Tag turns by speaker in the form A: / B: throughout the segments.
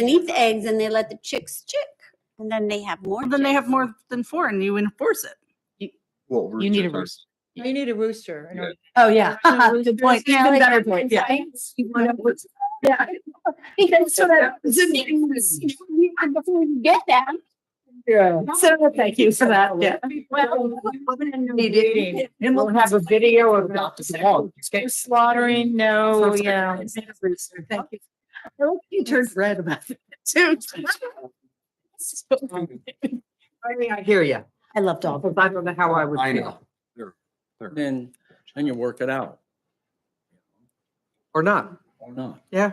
A: and eat the eggs and they let the chicks chick. And then they have more.
B: Well, then they have
A: chicks.
B: more than four and you enforce it.
C: Well,
D: You need a
C: roosters are-
D: rooster.
E: You need a rooster. in
C: Yeah.
E: order-
B: Oh, yeah.
E: There's no
B: Good
E: roosters
B: point.
E: now,
B: Even
E: like,
F: uh,
B: better
E: on
B: point. Yeah.
E: sites.
B: You wanna-
G: Yeah. Because so that, so the thing was, you know, we- and before you get that. Yeah.
B: So thank you for that. Yeah.
E: Eating. We'll have a video of no slaughtering,
D: Oh,
E: no, yeah.
B: Thank you. You turned red about it too.
E: I mean, I hear you. I love dogs. I don't know how I would.
C: I
E: feel.
C: know. They're- they're-
H: Then, then you work it out
I: or not.
H: or not.
I: Yeah.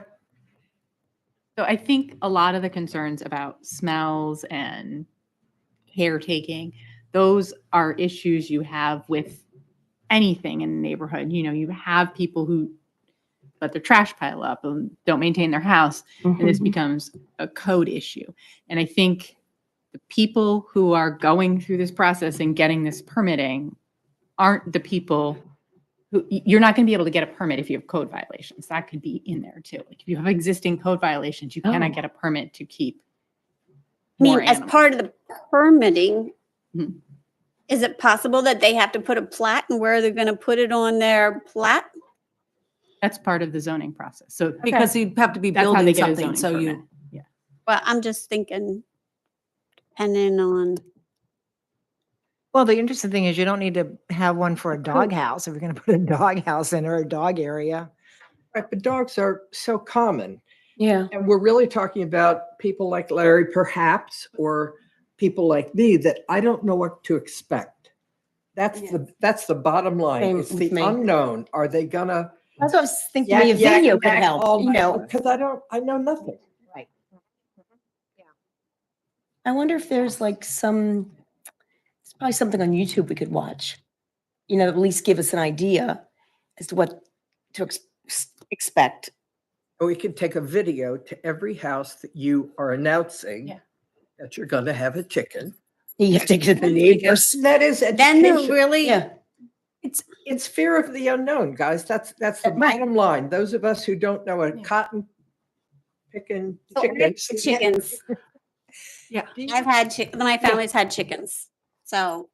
D: So I think a lot of the concerns about smells and caretaking, those are issues you have with anything in the neighborhood. You know, you have people who let their trash pile up and don't maintain their house, and
B: Mm-hmm.
D: this becomes a code issue. And I think the people who are going through this process and getting this permitting aren't the people who y- you're not going to be able to get a permit if you have code violations. That could be in there too. Like if you have existing code violations, you cannot get a permit to keep.
A: I mean,
D: more
A: as
D: animals.
A: part of the permitting,
B: Mm-hmm.
D: Mhm.
A: is it possible that they have to put a plat and where they're going to put it on their plat?
D: That's part of the zoning process. So
B: Because you have to be
D: that's how they
B: building
D: get a zoning
B: something, so you.
D: permit.
A: Well, I'm just thinking, depending on,
F: Well, the interesting thing is you don't need to have one for a doghouse if you're going to put a doghouse in or a dog area.
I: Right, but dogs are so common.
E: Yeah.
I: And we're really talking about people like Larry, perhaps, or people like me that I don't know what to expect. That's the that's the bottom line.
E: Same
I: it's
E: with
I: the
E: me.
I: unknown. Are they gonna
E: That's what I was thinking,
I: yak,
E: maybe a
I: yak,
E: video could
I: yak all
F: Oh
E: help, you
I: night?
E: know.
I: Because I don't I know nothing.
E: I wonder if there's like some, it's probably something on YouTube we could watch. You know, at least give us an idea as to what to ex- s- expect.
I: Or we could take a video to every house that you are announcing
D: Yeah.
I: that you're gonna have a chicken.
E: You have to get the neighbors.
I: That is
A: then they're
I: education.
A: really,
E: Yeah.
I: It's, it's fear of the unknown, guys. That's, that's the
E: Right.
I: bottom line. Those of us who don't know a
D: Yeah.
I: cotton picking
A: So I
I: chicken.
A: had chickens.
B: Yeah.
A: I've had chick, my family's had chickens. So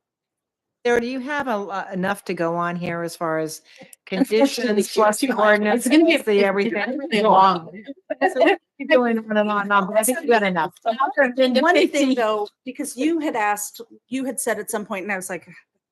F: There, do you have a, lo- enough to go on here as far as
E: Unfortunately,
F: conditions,
E: she has
F: plus
E: too much.
F: ordinance,
E: It's gonna be- it's- it's
F: everything?
E: really
F: Go
E: long.
F: on. So keep Going on and on and on, but I think you got enough.
B: One thing though, because you had asked, you had said at some point, and I was like,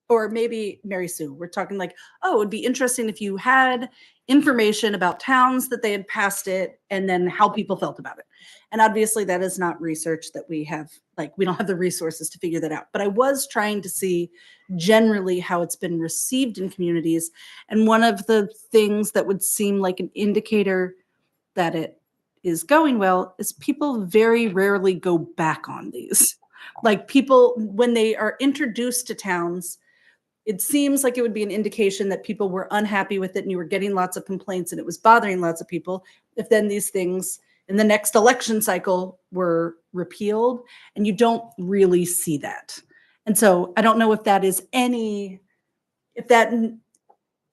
B: or maybe Mary Sue, we're talking like, oh, it'd be interesting if you had information about towns that they had passed it and then how people felt about it. And obviously that is not research that we have, like, we don't have the resources to figure that out. But I was trying to see generally how it's been received in communities. And one of the things that would seem like an indicator that it is going well is people very rarely go back on these. Like people, when they are introduced to towns, it seems like it would be an indication that people were unhappy with it and you were getting lots of complaints and it was bothering lots of people. If then these things in the next election cycle were repealed, and you don't really see that. And so I don't know if that is any, if that,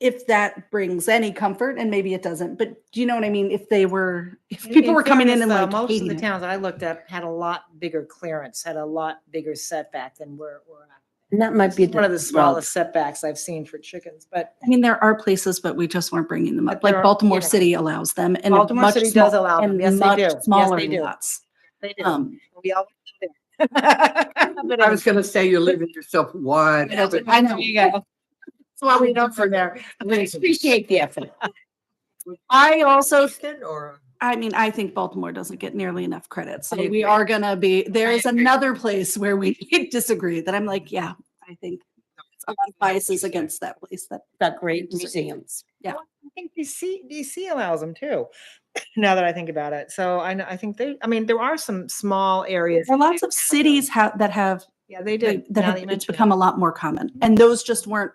B: if that brings any comfort, and maybe it doesn't, but do you know what I mean? If they were, if people were coming in and like
F: uh, Most of
B: hating
F: the
B: it.
F: towns I looked up had a lot bigger clearance, had a lot bigger setback than where we're at.
E: And that might be.
F: It's One of the
E: well,
F: smallest setbacks I've seen for chickens, but
B: I mean, there are places, but we just weren't bringing them up.
F: But there
B: Like
F: are-
B: Baltimore
F: yeah.
B: City allows them and they're
F: Baltimore
B: much
F: City does
B: small-
F: allow them.
B: and
F: Yes, they
B: much
F: do. Yes,
B: Smaller
F: they do.
B: lots.
F: they do.
B: Um,
F: We always do that.
C: I was gonna say you're leaving yourself wide. open.
F: I know. You go.
E: Well, we don't for there. We appreciate the effort. I also,
I: Chicken or?
B: I mean, I think Baltimore doesn't get nearly enough credit. So we are gonna be, there is another place where we disagree that I'm like, yeah, I think it's a lot of biases against that place that
E: got great museums.
F: I think DC, DC allows them too, now that I think about it. So I know, I think they, I mean, there are some small areas.
B: there are
F: that
B: lots
F: do
B: of
F: have them.
B: cities have, that have,
F: Yeah, they do.
B: that that
F: now
B: have-
F: that you
B: it's
F: mention it.
B: become a lot more common. And those just weren't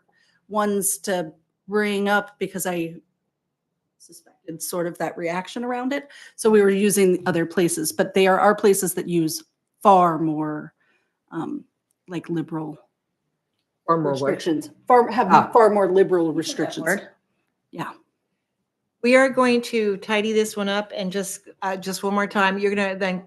B: ones to bring up because I suspected sort of that reaction around it. So we were using other places, but they are, are places that use far more um, like liberal
I: Or more what?
B: restrictions, far,
I: Ah.
B: have far more liberal restrictions.
E: word.
F: We are going to tidy this one up and just, uh, just one more time. You're gonna then